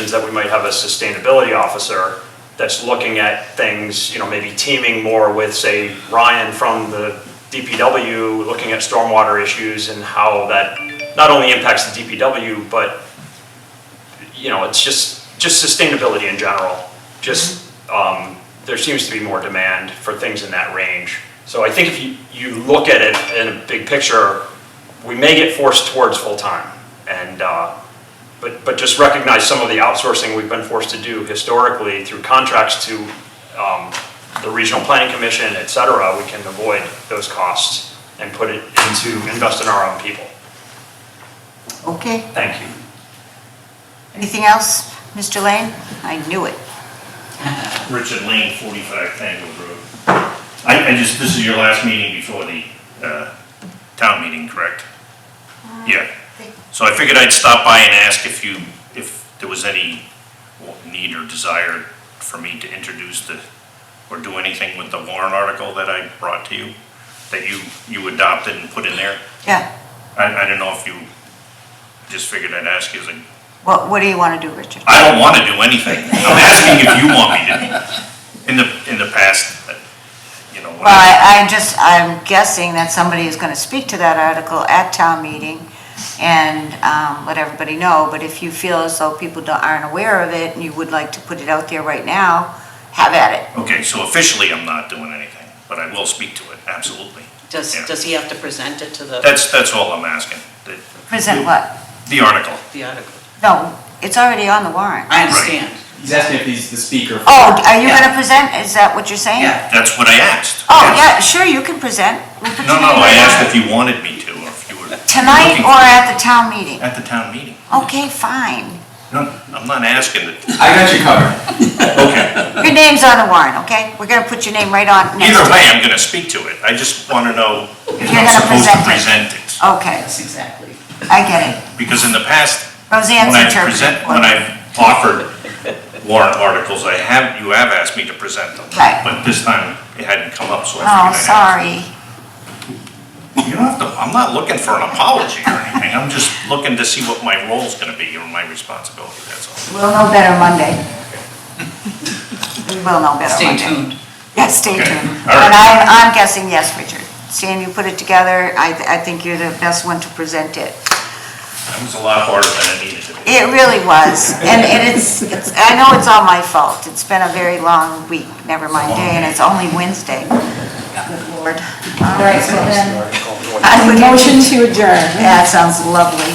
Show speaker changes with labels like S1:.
S1: is that we might have a sustainability officer that's looking at things, you know, maybe teaming more with, say, Ryan from the DPW, looking at stormwater issues and how that not only impacts the DPW, but, you know, it's just, just sustainability in general. Just, um, there seems to be more demand for things in that range. So I think if you, you look at it in a big picture, we may get forced towards full-time. And, uh, but, but just recognize some of the outsourcing we've been forced to do historically through contracts to um, the Regional Planning Commission, et cetera, we can avoid those costs and put it into, invest in our own people.
S2: Okay,
S1: Thank you.
S2: anything else, Mr. Lane? I knew it.
S3: Richard Lane, 45 Tango Road. I, I just, this is your last meeting before the uh, town meeting, correct? Yeah. So I figured I'd stop by and ask if you, if there was any need or desire for me to introduce the, or do anything with the warrant article that I brought to you, that you, you adopted and put in there.
S2: Yeah,
S3: I, I don't know if you, just figured I'd ask you, as a-
S2: what, what do you want to do, Richard?
S3: I don't want to do anything. I'm asking if you want me to. In the, in the past, you know, when
S2: Well,
S3: I-
S2: I, I just, I'm guessing that somebody is going to speak to that article at town meeting and um, let everybody know, but if you feel as though people don't- aren't aware of it and you would like to put it out there right now, have at it.
S3: okay, so officially I'm not doing anything, but I will speak to it, absolutely.
S4: Does,
S3: Yeah.
S4: does he have to present it to the,
S3: That's, that's all I'm asking, the,
S2: Present what?
S3: the article.
S4: the article?
S2: No, it's already on the warrant.
S4: I understand.
S5: He's asking if he's the speaker. for-
S2: Oh, are you
S4: Yeah.
S2: going to present? Is that what you're saying?
S4: Yeah.
S3: That's what I asked.
S2: Oh, yeah, sure, you can present. We'll put
S3: No,
S2: you
S3: no,
S2: in
S3: I
S2: the-
S3: asked if you wanted me to, or if you were.
S2: Tonight
S3: looking
S2: or
S3: for-
S2: at the town meeting?
S3: At the town meeting.
S2: Okay, fine.
S3: No, I'm not asking it.
S5: I got you covered.
S3: Okay.
S2: Your name's on the warrant, okay? We're gonna put your name right on next
S3: Either
S2: to it.
S3: way, I'm gonna speak to it. I just want to know if
S2: You're
S3: I'm
S2: gonna
S3: supposed to
S2: present
S3: present it.
S2: Okay,
S4: Yes, exactly.
S2: I get it.
S3: Because in the past,
S2: Roseanne's
S3: When I
S2: interpreting.
S3: present, when I've offered warrant articles, I have, you have asked me to present them.
S2: Right.
S3: But this time, it hadn't come up, so I
S2: Oh,
S3: figured I had.
S2: sorry.
S3: You don't have to, I'm not looking for an apology or anything, I'm just looking to see what my role's gonna be or my responsibility, that's all.
S2: We'll know better Monday. We will know better
S4: Stay
S2: Monday.
S4: tuned.
S2: Yeah, stay
S3: Okay,
S2: tuned.
S3: all right.
S2: And I'm, I'm guessing yes, Richard. Sam, you put it together. I, th- I think you're the best one to present it.
S3: That was a lot harder than I needed to be.
S2: It really was, and and it's, it's- I know it's all my fault, it's been a very long week, never mind day, and it's only Wednesday. Good lord. All
S6: All right,
S2: right,
S6: so then,
S2: I would-
S6: motion to adjourn.
S2: That sounds lovely.